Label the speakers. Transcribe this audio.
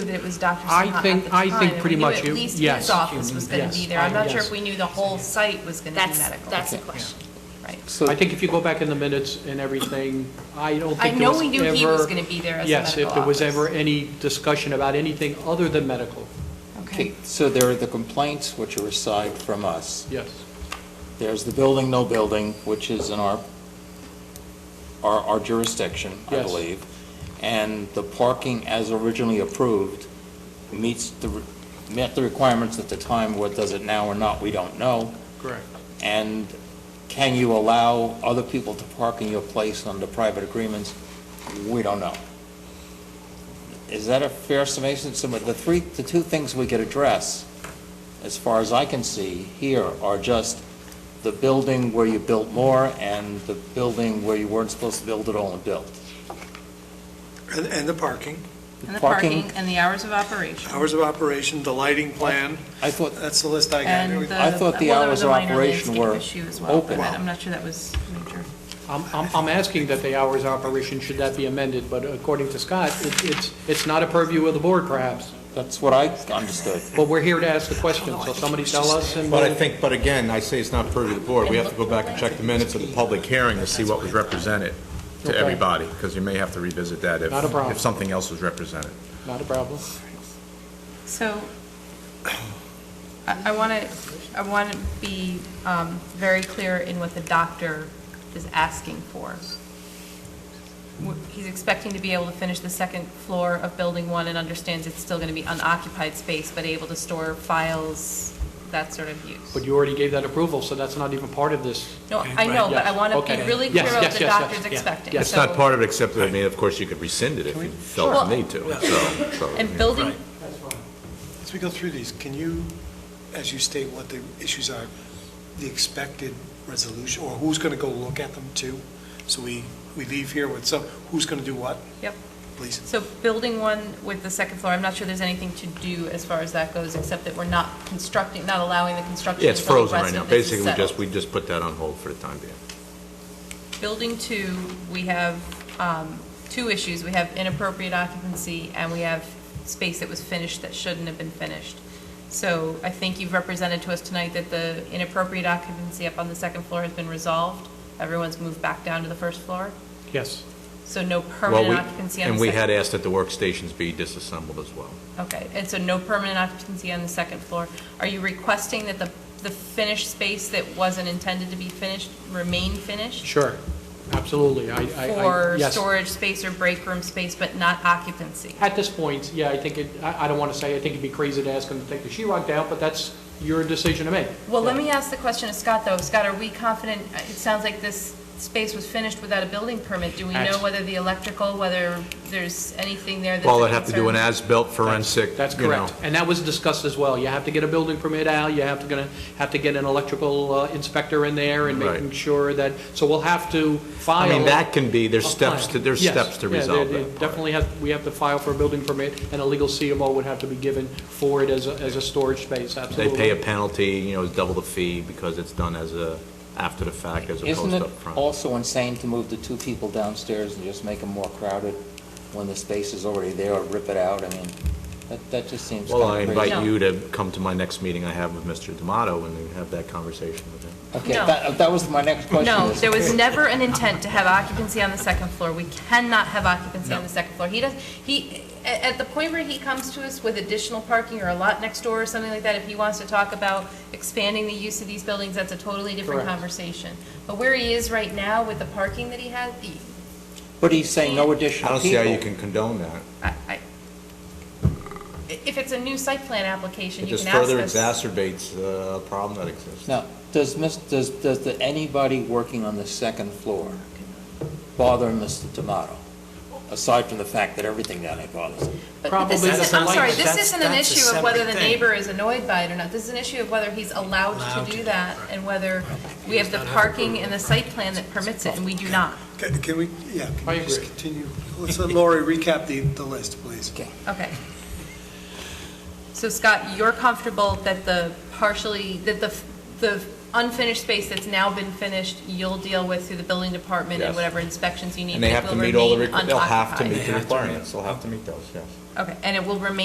Speaker 1: that it was Dr.
Speaker 2: I
Speaker 1: Sinha at
Speaker 2: think-
Speaker 1: the
Speaker 2: I
Speaker 1: time,
Speaker 2: think
Speaker 1: and we
Speaker 2: pretty
Speaker 1: knew
Speaker 2: much
Speaker 1: at
Speaker 2: you-
Speaker 1: least
Speaker 2: yes.
Speaker 1: his office was going
Speaker 2: Yes,
Speaker 1: to be there. I'm not sure
Speaker 2: yes.
Speaker 1: if we knew the whole site was going to be
Speaker 3: That's,
Speaker 1: medical.
Speaker 3: that's the
Speaker 2: Okay, yeah.
Speaker 3: question.
Speaker 1: Right.
Speaker 2: I think if you go back in the minutes and everything, I don't
Speaker 1: I
Speaker 2: think there
Speaker 1: know
Speaker 2: was
Speaker 1: we knew he was
Speaker 2: ever-
Speaker 1: going to be there as a medical
Speaker 2: Yes,
Speaker 1: office.
Speaker 2: if there was ever any discussion about anything other than medical,
Speaker 1: Okay,
Speaker 4: So there are the complaints which are aside from us.
Speaker 2: yes.
Speaker 4: There's the building, no building, which is in our, our our jurisdiction, I
Speaker 2: Yes.
Speaker 4: believe. And the parking as originally approved meets the, re- met the requirements at the time, what does it now or not, we don't know.
Speaker 2: Correct.
Speaker 4: And can you allow other people to park in your place under private agreements? We don't know. Is that a fair summation? Some of the three, the two things we could address, as far as I can see here, are just the building where you built more and the building where you weren't supposed to build at all and built.
Speaker 5: And, and the parking,
Speaker 1: and the parking and the hours of operation.
Speaker 5: hours of operation, the lighting plan,
Speaker 4: I thought,
Speaker 5: that's the list I
Speaker 1: And the,
Speaker 5: got.
Speaker 4: I thought the
Speaker 1: well, there was
Speaker 4: hours
Speaker 1: a
Speaker 4: of
Speaker 1: minor
Speaker 4: operation
Speaker 1: landscape
Speaker 4: were
Speaker 1: issue as well, but
Speaker 4: open.
Speaker 1: I'm not sure that was major.
Speaker 2: I'm, I'm I'm asking that the hours of operation, should that be amended, but according to Scott, it- it's, it's not a purview of the board perhaps,
Speaker 4: that's what I understood.
Speaker 2: but we're here to ask the question, so somebody tell us and
Speaker 6: But I
Speaker 2: we'll-
Speaker 6: think, but again, I say it's not purview of the board. We have to go back and check the minutes of the public hearing to see what was represented to
Speaker 2: Okay.
Speaker 6: everybody, because you may have to revisit that if,
Speaker 2: Not a problem.
Speaker 6: if something else was represented.
Speaker 2: not a problem.
Speaker 1: So, I want to, I want to be um, very clear in what the doctor is asking for. W- He's expecting to be able to finish the second floor of Building 1 and understands it's still going to be unoccupied space, but able to store files, that sort of
Speaker 2: But
Speaker 1: use.
Speaker 2: you already gave that approval, so that's not even part of this.
Speaker 1: No, I know, but I want to be
Speaker 2: Okay.
Speaker 1: really
Speaker 2: Yes,
Speaker 1: clear about
Speaker 2: yes,
Speaker 1: what the
Speaker 2: yes, yes,
Speaker 1: doctor's
Speaker 2: yeah,
Speaker 1: expecting.
Speaker 2: yes.
Speaker 6: It's not
Speaker 1: So-
Speaker 6: part of it, except that, I mean, of course, you could rescind it if you
Speaker 1: Sure.
Speaker 6: felt the need to, so. so, I
Speaker 1: And
Speaker 6: mean,
Speaker 1: building,
Speaker 5: As we go through these, can you, as you state what the issues are, the expected resolution, or who's going to go look at them too? So we, we leave here with some, who's going to do what,
Speaker 1: yep.
Speaker 5: please?
Speaker 1: So building one with the second floor, I'm not sure there's anything to do as far as that goes, except that we're not constructing, not allowing the construction.
Speaker 6: Yeah, it's
Speaker 1: until the
Speaker 6: frozen right
Speaker 1: rest
Speaker 6: now.
Speaker 1: of this is
Speaker 6: Basically, we just,
Speaker 1: settled.
Speaker 6: we just put that on hold for the time being.
Speaker 1: Building two, we have um, two issues. We have inappropriate occupancy, and we have space that was finished that shouldn't have been finished. So I think you've represented to us tonight that the inappropriate occupancy up on the second floor has been resolved. Everyone's moved back down to the first floor,
Speaker 2: Yes.
Speaker 1: so no
Speaker 6: Well,
Speaker 1: permanent
Speaker 6: we
Speaker 1: occupancy on the second.
Speaker 6: And we had asked that the workstations be disassembled as well.
Speaker 1: Okay, and so no permanent occupancy on the second floor. Are you requesting that the, the finished space that wasn't intended to be finished remain finished?
Speaker 2: Sure, absolutely, I, I- I.
Speaker 1: For
Speaker 2: yes.
Speaker 1: storage space or break room space, but not occupancy?
Speaker 2: At this point, yeah, I think, it I I don't want to say, I think it'd be crazy to ask them to take the sheetrock down, but that's your decision to make.
Speaker 1: Well, let me ask the question to Scott, though. Scott, are we confident, uh, it sounds like this space was finished without a building permit. Do we know
Speaker 2: That's-
Speaker 1: whether the electrical, whether there's anything there that's a
Speaker 6: Well, they'd have to do an
Speaker 1: concern?
Speaker 6: as-built forensic,
Speaker 2: That's
Speaker 6: you know.
Speaker 2: correct, and that was discussed as well. You have to get a building permit out, you have to, gonna, have to get an electrical uh, inspector in there and
Speaker 6: Right.
Speaker 2: making sure that, so we'll have to
Speaker 6: I
Speaker 2: file.
Speaker 6: mean, that can be,
Speaker 2: a
Speaker 6: there's steps, to
Speaker 2: plan.
Speaker 6: there's
Speaker 2: Yes,
Speaker 6: steps to
Speaker 2: yeah,
Speaker 6: resolve
Speaker 2: they- they
Speaker 6: that. part.
Speaker 2: Definitely have, we have to file for a building permit, and a legal CMO would have to be given for it as a, as a storage space,
Speaker 6: They
Speaker 2: absolutely.
Speaker 6: pay a penalty, you know, it's double the fee because it's done as a, after the fact as opposed
Speaker 4: Isn't
Speaker 6: to
Speaker 4: it
Speaker 6: upfront.
Speaker 4: also insane to move the two people downstairs and just make them more crowded when the space is already there, or rip it out? I mean, that, that just seems
Speaker 6: Well, I
Speaker 4: kind of crazy.
Speaker 6: invite you to come to my next meeting I have with Mr. D'Amato and then have that conversation with him.
Speaker 4: Okay,
Speaker 1: No.
Speaker 4: that, that was my next question.
Speaker 1: No,
Speaker 4: is-
Speaker 1: there was never an intent to have occupancy on the second floor. We cannot have occupancy on the second floor. He does, he, at, at the point where he comes to us with additional parking or a lot next door or something like that, if he wants to talk about expanding the use of these buildings, that's a totally different
Speaker 2: Correct.
Speaker 1: conversation. But where he is right now with the parking that he has, he-
Speaker 4: But he's saying no additional
Speaker 6: I
Speaker 4: people.
Speaker 6: don't see how you can condone that.
Speaker 1: I, I, if it's a new site plan application,
Speaker 6: It
Speaker 1: you
Speaker 6: just
Speaker 1: can ask
Speaker 6: further
Speaker 1: us.
Speaker 6: exacerbates uh, a problem that exists.
Speaker 4: Now, does Miss, does, does the- anybody working on the second floor bother Mr. Tomato? Aside from the fact that everything down there bothers him?
Speaker 1: But- But this isn't,
Speaker 2: Probably doesn't
Speaker 1: I'm
Speaker 2: like
Speaker 1: sorry,
Speaker 2: it.
Speaker 1: this
Speaker 7: That's-
Speaker 1: isn't an
Speaker 7: that's a
Speaker 1: issue of whether the
Speaker 7: separate thing.
Speaker 1: neighbor is annoyed by it or not. This is an issue of whether he's allowed
Speaker 7: Allowed
Speaker 1: to
Speaker 7: to
Speaker 1: do
Speaker 7: do
Speaker 1: that and whether we have the parking and the site plan that permits it, and we do not.
Speaker 5: Can can we, yeah,
Speaker 2: I
Speaker 5: can we just
Speaker 2: agree.
Speaker 5: continue? Let's let Lori recap the, the list, please.
Speaker 1: Okay. So Scott, you're comfortable that the partially, that the, the unfinished space that's now been finished, you'll deal with through the building department and
Speaker 6: Yes.
Speaker 1: whatever inspections you need.
Speaker 6: And they
Speaker 1: it
Speaker 6: have to
Speaker 1: will
Speaker 6: meet all the,
Speaker 1: remain
Speaker 6: requ- they'll have to
Speaker 1: unoccupied.
Speaker 6: meet the requirements, they'll have to meet those, yes.
Speaker 1: Okay, and it will remain